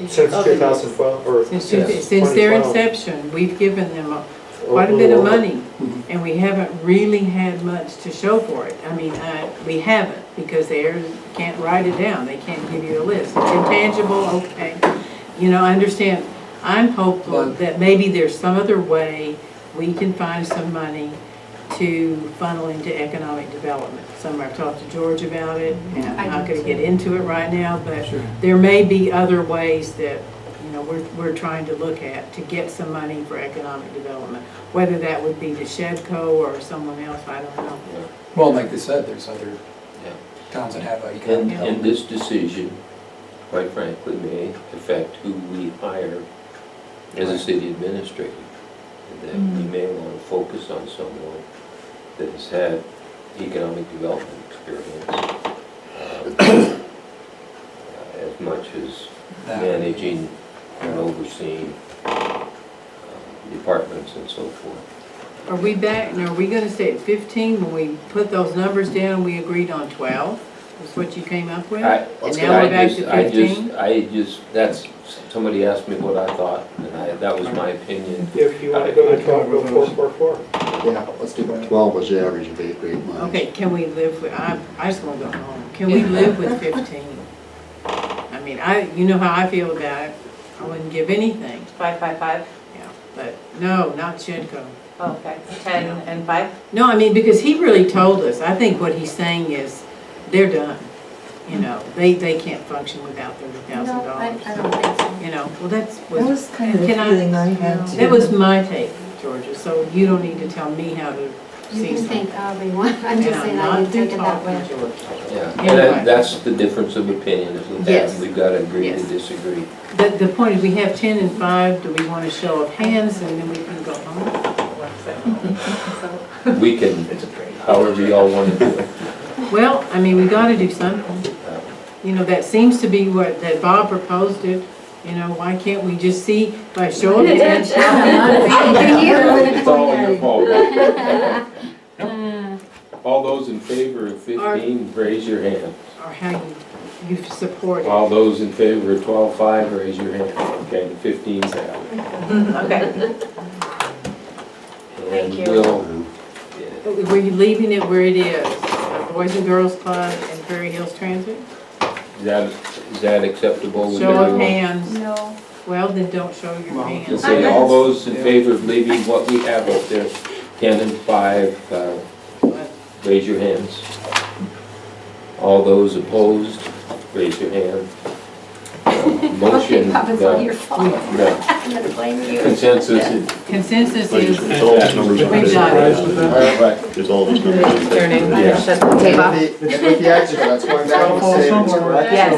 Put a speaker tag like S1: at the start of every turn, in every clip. S1: Since
S2: of the-
S1: 2012, or...
S2: Since, two- since their
S1: 2012.
S2: inception, we've given them a- quite a bit of money, and we haven't really had much to show for it. I mean, I, we haven't, because they are- can't write it down, they can't give you a list. Intangible, okay, you know, I understand. I'm hopeful
S3: Well-
S2: that maybe there's some other way we can find some money to funnel into economic development. Some, I've talked to George about it, and I'm not gonna get into it right now, but
S3: Sure.
S2: there may be other ways that, you know, we're, we're trying to look at to get some money for economic development. Whether that would be the Shedco or someone else, I don't know.
S3: Well, like they said, there's other
S4: Yeah.
S3: towns that have economic
S4: And,
S2: Yeah.
S4: and this decision, quite frankly, may affect who we hire as a
S3: Right. Mm-hmm.
S4: city administrator. And That we may want to focus on someone that has had economic development experience um, uh, as much as
S3: that-
S4: managing and overseeing um, departments and so forth.
S2: Are we back, and are we gonna stay at fifteen when we put those numbers down, we agreed on twelve? Is what you came up with?
S4: I-
S2: And now
S4: I
S2: we're back
S4: just-
S2: to fifteen?
S4: I just, I just, that's, somebody asked me what I thought, and I, that was my opinion.
S1: If you want to go to 12, go 444.
S5: Yeah, let's do that. Twelve was the average of eight, eight months.
S2: Okay, can we live with, I, I just wanna go home. Can we live with fifteen? I mean, I, you know how I feel about it. I wouldn't give anything,
S6: Five, five, five,
S2: yeah, but no, not Shedco.
S6: okay, ten and five?
S2: No, I mean, because he really told us, I think what he's saying is, they're done. You know, they, they can't function without thirty thousand
S7: No, I, I
S2: dollars.
S7: don't think so.
S2: You know, well, that's,
S8: That
S2: was-
S8: was kind of the
S2: Can I-
S8: feeling I had too.
S2: that was my take, Georgia, so you don't need to tell me how to
S7: You
S2: see
S7: can
S2: something.
S7: think however you want, I'm just saying I didn't take it that way.
S4: Yeah,
S2: Yeah,
S4: and
S2: right.
S4: that- that's the difference of opinion, is with that,
S2: Yes.
S4: we've got to agree to
S2: Yes.
S4: disagree.
S2: The, the point is, we have ten and five, do we want a show of hands, and then we can go home?
S4: We can, however y'all want to do it. Uh,
S2: Well, I mean, we gotta do something. You know, that seems to be what, that Bob proposed it, you know, why can't we just see by show of hands?
S4: It's all your fault. All those in favor of 15, raise your hand.
S2: or how you, you support it.
S4: All those in favor of 12, 5, raise your hand. Okay, the 15's out.
S6: Okay, Thank you.
S4: And we'll,
S2: Were you leaving it where it is, uh, Boys and Girls Club and Prairie Hills Transit?
S4: is that, is that acceptable with
S2: Show of
S4: everyone?
S2: hands,
S7: No.
S2: well, then don't show your
S3: Well,
S4: You'll
S2: hands.
S4: say all those in favor of leaving what we have up there, 10 and 5, uh, Raise your hands. All those opposed, raise your hand. Motion,
S7: It's not your
S4: the
S7: fault,
S4: the
S7: I'm gonna blame you.
S4: consensus is,
S2: Consensus
S9: Like,
S2: is,
S9: it's all these numbers on
S2: We've
S9: this.
S2: got it.
S4: right,
S9: It's all these numbers. on this.
S6: turning,
S4: Yeah.
S6: shut the
S5: And
S6: tape off.
S5: with the- and with the extra, that's why I'm back to say it's correct.
S6: Yes.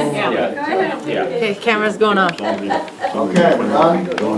S4: yeah, yeah.
S6: Okay, camera's going off.
S9: It's all these- it's all these
S5: Okay,
S9: numbers.
S5: done.